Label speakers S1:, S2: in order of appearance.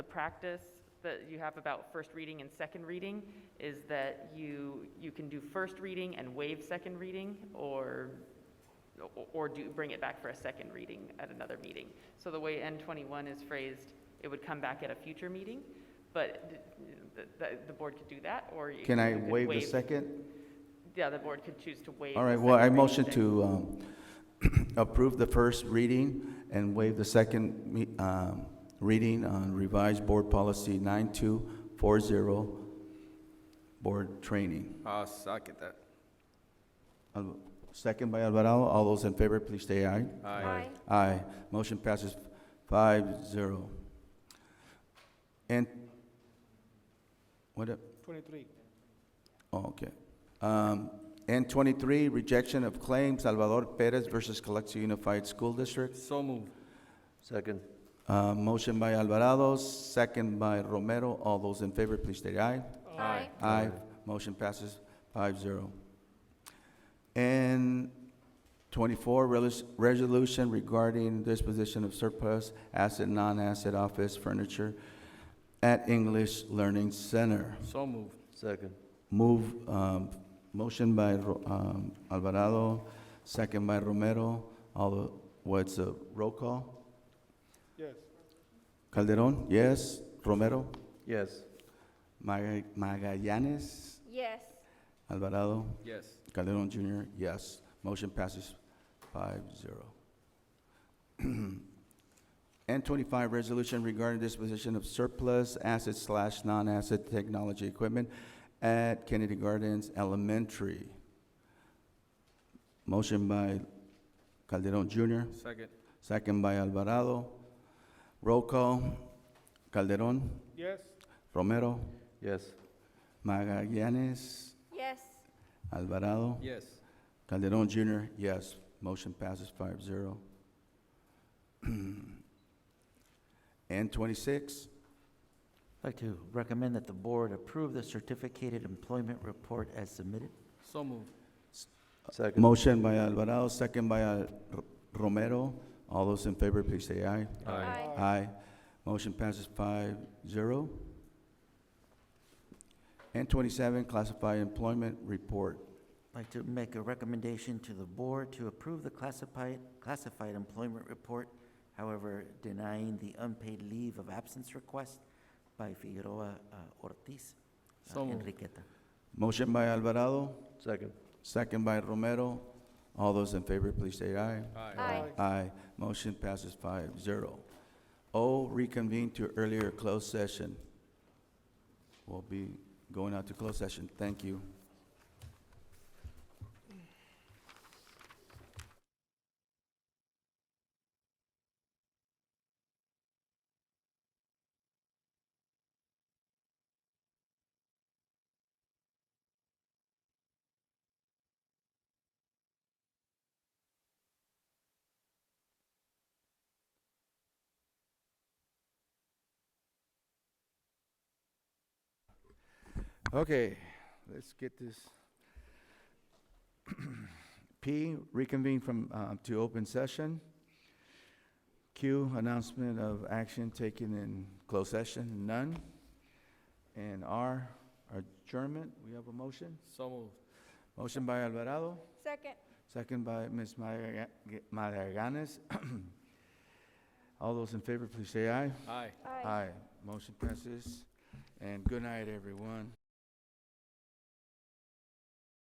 S1: practice that you have about first reading and second reading is that you, you can do first reading and waive second reading, or, or do, bring it back for a second reading at another meeting. So the way N twenty-one is phrased, it would come back at a future meeting, but the, the, the board could do that, or you
S2: Can I
S1: you could
S2: waive the second?
S1: Yeah, the board could choose to waive.
S2: All
S1: the
S2: right, well, I
S1: second reading
S2: motion
S1: thing.
S2: to um, approve the first reading and waive the second me- um, reading on revised board policy 9240, board training.
S3: I'll second Ah, that.
S2: Al- Second by Alvarado, all those in favor, please say aye.
S3: Aye.
S2: Aye, motion passes five zero. And, what, a-
S4: Twenty-three.
S2: oh, okay. Um, N twenty-three, rejection of claim, Salvador Perez versus Calexico Unified School District.
S3: So move.
S5: Second.
S2: Uh, motion by Alvarado, second by Romero. All those in favor, please state aye.
S3: Aye.
S2: Aye. Motion passes five zero. And twenty-four, relis- resolution regarding disposition of surplus asset, non-asset office furniture at English Learning Center.
S3: So move.
S5: Second.
S2: Move, um, motion by, Ro- um, Alvarado, second by Romero. All, the- what's the roll call?
S4: Yes.
S2: Calderon, yes. Romero?
S5: Yes.
S2: Maga- Magallanes,
S6: Yes.
S2: Alvarado,
S3: Yes.
S2: Calderon Jr., yes. Motion passes five zero. And twenty-five, resolution regarding disposition of surplus asset slash non-asset technology equipment at Kennedy Gardens Elementary. Motion by Calderon Jr.,
S3: Second.
S2: second by Alvarado. Roll call, Calderon,
S4: Yes.
S2: Romero,
S5: Yes.
S2: Magallanes,
S6: Yes.
S2: Alvarado.
S3: Yes.
S2: Calderon Jr., yes. Motion passes five zero. And twenty-six,
S7: I'd like to recommend that the board approve the certificated employment report as submitted.
S3: So move.
S5: Second.
S2: motion by Alvarado, second by uh, R- Romero. All those in favor, please say aye.
S6: Aye.
S2: Aye. Motion passes five zero. And twenty-seven, classified employment report.
S7: I'd like to make a recommendation to the board to approve the classified, classified employment report, however denying the unpaid leave of absence request by Figueroa uh, Ortiz uh,
S3: So moved.
S7: Enriqueta.
S2: Motion by Alvarado,
S5: Second.
S2: second by Romero. All those in favor, please say aye.
S3: Aye.
S6: Aye.
S2: Aye. Motion passes five zero. O, reconvene to earlier closed session. We'll be going out to closed session. Thank you. Okay, let's get this. P, reconvene from, uh, to open session. Q, announcement of action taken in closed session, none. And R, adjournment. We have a motion.
S3: So move.
S2: Motion by Alvarado.
S6: Second.
S2: Second by Ms. Maga- Magallanes. All those in favor, please say aye.
S3: Aye.
S2: Aye. Motion passes. And good night, everyone.